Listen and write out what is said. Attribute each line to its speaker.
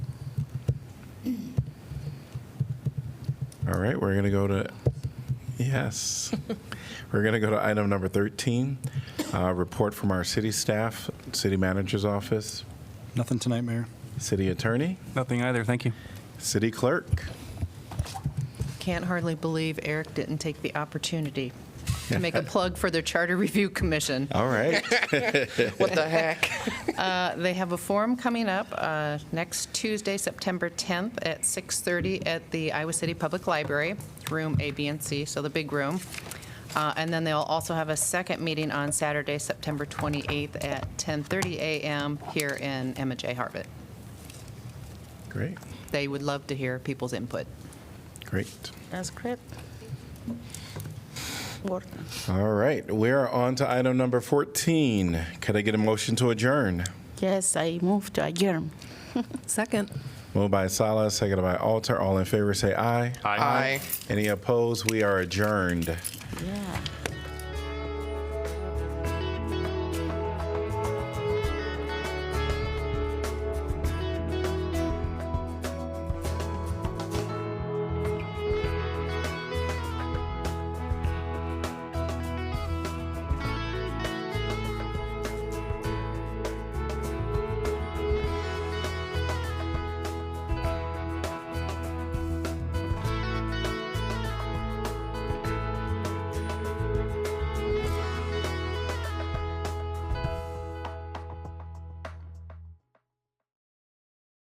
Speaker 1: All right, we're going to go to, yes. We're going to go to item number 13, uh, report from our city staff, city manager's office,
Speaker 2: Nothing tonight, Mayor.
Speaker 1: city attorney,
Speaker 3: Nothing either, thank you.
Speaker 1: city clerk.
Speaker 4: Can't hardly believe Eric didn't take the opportunity to make a plug for their Charter Review Commission.
Speaker 1: All right.
Speaker 5: What the heck?
Speaker 4: Uh, They have a forum coming up uh, next Tuesday, September 10th, at 6:30 at the Iowa City Public Library, room A, B, and C, so the big room. Uh, And then they'll also have a second meeting on Saturday, September 28th, at 10:30 a.m. here in Emma J. Harvett.
Speaker 1: Great,
Speaker 4: They would love to hear people's input.
Speaker 1: great.
Speaker 5: That's great. What?
Speaker 1: All right, we are on to item number 14. Could I get a motion to adjourn?
Speaker 5: Yes, I moved to adjourn.
Speaker 4: Second.
Speaker 1: Moved by Salah, seconded by Alter. All in favor, say aye.
Speaker 3: Aye.
Speaker 1: Any opposed? We are adjourned.
Speaker 5: Yeah.